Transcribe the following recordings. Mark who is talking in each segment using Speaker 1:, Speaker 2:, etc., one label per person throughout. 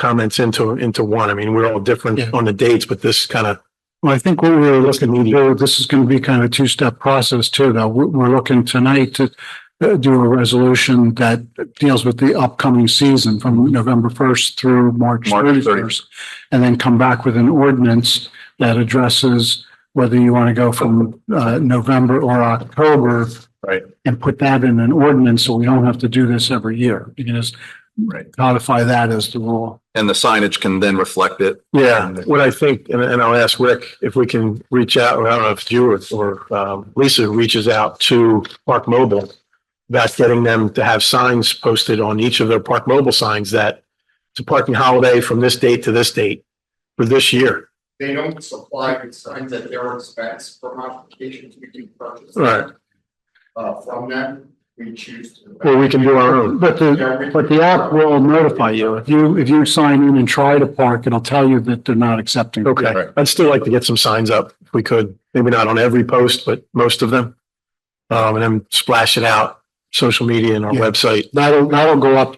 Speaker 1: comments into, into one. I mean, we're all
Speaker 2: Yeah.
Speaker 1: different on the dates, but this kind of,
Speaker 2: Well, I think what we we're looking to do, this is going to be kind of a two-step process too, though. We're, we're looking tonight to uh, do a resolution that deals with the upcoming season from November first through March
Speaker 3: Mm-hmm. March 30th.
Speaker 2: thirty-first. And then come back with an ordinance that addresses whether you want to go from, uh, November or October.
Speaker 3: Right.
Speaker 2: And put that in an ordinance so we don't have to do this every year. You can just
Speaker 3: Right.
Speaker 2: codify that as the rule.
Speaker 3: And the signage can then reflect it.
Speaker 1: yeah, what I think, and, and I'll ask Rick if we can reach out, or I don't know if it's you or, or, um, Lisa reaches out to Park Mobile. That's getting them to have signs posted on each of their Park Mobile signs that it's a parking holiday from this date to this date for this year.
Speaker 4: They don't supply the signs at their expense for modifications we do purchase.
Speaker 1: Right.
Speaker 4: Uh, from them, we choose to.
Speaker 1: Or we can do our own.
Speaker 2: But the,
Speaker 4: Yeah, we-
Speaker 2: But the app will notify you. If you, if you sign in and try to park, it'll tell you that they're not accepting.
Speaker 1: Okay,
Speaker 3: Right.
Speaker 1: I'd still like to get some signs up if we could, maybe not on every post, but most of them. Um, and then splash it out, social media and our
Speaker 2: Yeah.
Speaker 1: website.
Speaker 2: That'll, that'll go up,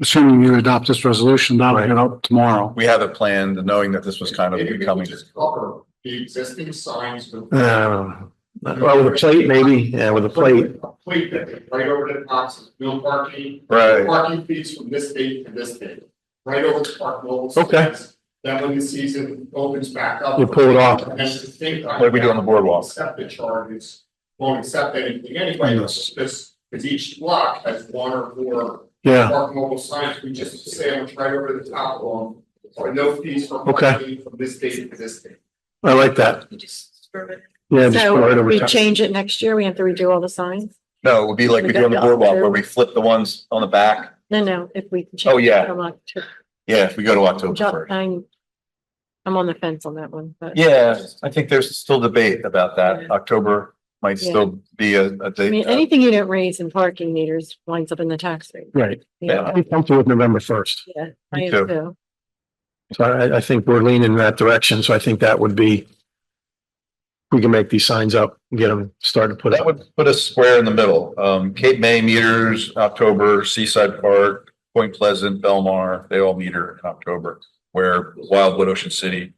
Speaker 2: assuming you adopt this resolution, that'll
Speaker 1: Right.
Speaker 2: get up tomorrow.
Speaker 3: We have it planned, knowing that this was kind of
Speaker 4: Maybe we
Speaker 3: becoming.
Speaker 4: Just cover the existing signs with.
Speaker 1: Um, well, with a plate maybe, yeah, with a plate.
Speaker 4: A plate that they right over the box is no parking,
Speaker 3: Right.
Speaker 4: parking fees from this date to this date, right over the park mobile.
Speaker 1: Okay.
Speaker 4: signs. That when the season opens back up.
Speaker 1: You pull it off.
Speaker 4: And at the same time.
Speaker 3: Like we do on the boardwalk.
Speaker 4: Accept the charges, won't accept anything anyway,
Speaker 1: Yes.
Speaker 4: it's just, because each block has one or more
Speaker 1: Yeah,
Speaker 4: Park mobile signs, we just sandwich right over the top of them, or no fees for
Speaker 1: Okay.
Speaker 4: parking from this date to this date.
Speaker 1: I like that.
Speaker 5: You just screw it.
Speaker 1: Yeah. just put it
Speaker 5: So
Speaker 1: over
Speaker 5: we
Speaker 1: top.
Speaker 5: change it next year, we have to redo all the signs?
Speaker 3: No, it would be like we do on the boardwalk where we flip the ones on the back.
Speaker 5: No, no, if we. can change
Speaker 3: Oh, yeah.
Speaker 5: it from October-
Speaker 3: Yeah, if we go to October
Speaker 5: Ju-
Speaker 3: first.
Speaker 5: I'm, I'm on the fence on that one, but.
Speaker 3: Yeah, I think there's still debate about that.
Speaker 5: Yeah.
Speaker 3: October might
Speaker 5: Yeah.
Speaker 3: still be a, a
Speaker 5: I
Speaker 3: date.
Speaker 5: mean, anything you don't raise in parking meters winds up in the tax rate.
Speaker 1: Right.
Speaker 5: you know?
Speaker 3: Yeah.
Speaker 1: I'm comfortable with November first.
Speaker 5: Yeah, I
Speaker 3: Me
Speaker 5: am
Speaker 3: too.
Speaker 5: too.
Speaker 1: So I, I think we're leaning in that direction. So I think that would be we can make these signs up and get them started to put
Speaker 3: That
Speaker 1: up.
Speaker 3: would put us square in the middle. Um, Cape May meters, October, Seaside Park, Point Pleasant, Belmar, they all meter in October. Where Wildwood, Ocean City,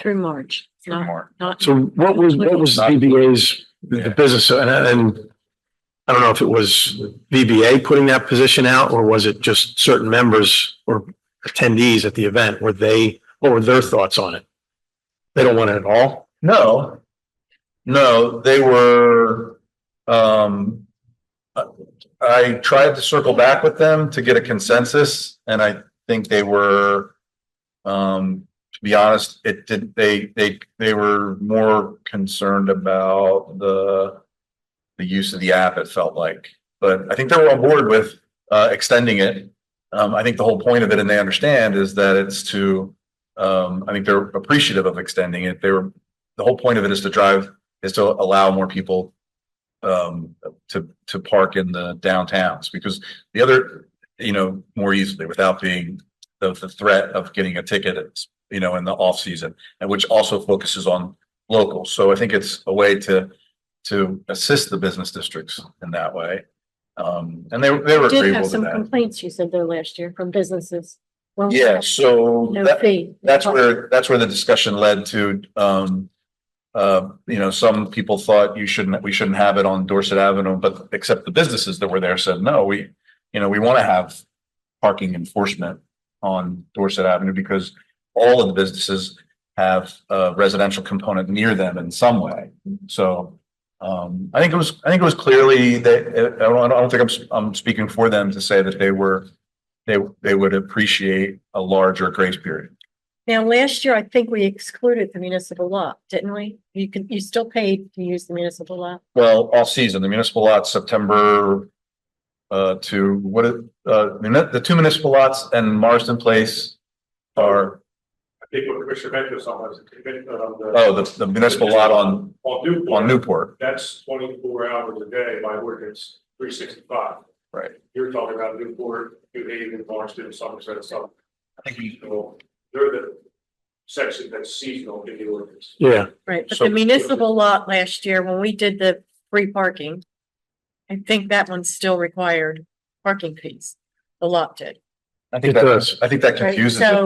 Speaker 5: Through March, It's not,
Speaker 3: Fremont.
Speaker 5: not,
Speaker 1: So what was, what was DBA's,
Speaker 3: Yeah.
Speaker 1: the business, and, and I don't know if it was VBA putting that position out, or was it just certain members or attendees at the event? Were they, what were their thoughts on it? They don't want it at all?
Speaker 3: No. No, they were, um. I tried to circle back with them to get a consensus and I think they were. Um, to be honest, it did, they, they, they were more concerned about the. The use of the app, it felt like, but I think they were on board with, uh, extending it. Um, I think the whole point of it and they understand is that it's to. Um, I think they're appreciative of extending it. They were the whole point of it is to drive, is to allow more people um, to, to park in the downtowns, because the other, you know, more easily without being the, the threat of getting a ticket, you know, in the off-season, and which also focuses on locals. So I think it's a way to, to assist the business districts in that way. Um, and they, were- they were
Speaker 5: we did
Speaker 3: agreeable
Speaker 5: have
Speaker 3: to
Speaker 5: some
Speaker 3: that.
Speaker 5: complaints, you said there last year from businesses. Well,
Speaker 3: Yeah, so
Speaker 5: No
Speaker 3: that,
Speaker 5: fee.
Speaker 3: that's where, that's where the discussion led to, um. Uh, you know, some people thought you shouldn't, we shouldn't have it on Dorset Avenue, but except the businesses that were there said, no, we, you know, we want to have. Parking enforcement on Dorset Avenue because all of the businesses have a residential component near them in some way. So, um, I think it was, I think it was clearly that, uh, I don't, I don't think I'm, s- I'm speaking for them to say that they were. They, they would appreciate a larger grace period.
Speaker 5: Now, last year, I think we excluded the municipal lot, didn't we? You can, you still paid to use the municipal lot.
Speaker 3: Well, all season, the municipal lots, September. Uh, to what, is- uh, muni- the two municipal lots and Marsden Place are,
Speaker 6: I think what Commissioner Ventris on was, uh,
Speaker 3: oh, the, the municipal lot on,
Speaker 6: on
Speaker 3: on
Speaker 6: Newport,
Speaker 3: Newport.
Speaker 6: that's twenty-four hours a day by ordinance, three sixty-five.
Speaker 3: Right.
Speaker 6: You're talking about Newport, New Haven, Barnstable, Somerset, Southern,
Speaker 3: I think you-
Speaker 6: so they're the section that's seasonal in the ordinance.
Speaker 1: Yeah,
Speaker 5: Right, but
Speaker 3: So-
Speaker 5: the municipal lot last year, when we did the free parking, I think that one still required parking fees. The lot did.
Speaker 3: I think
Speaker 1: It
Speaker 3: that,
Speaker 1: does.
Speaker 3: I think that
Speaker 5: Right,
Speaker 3: confuses it.
Speaker 5: so-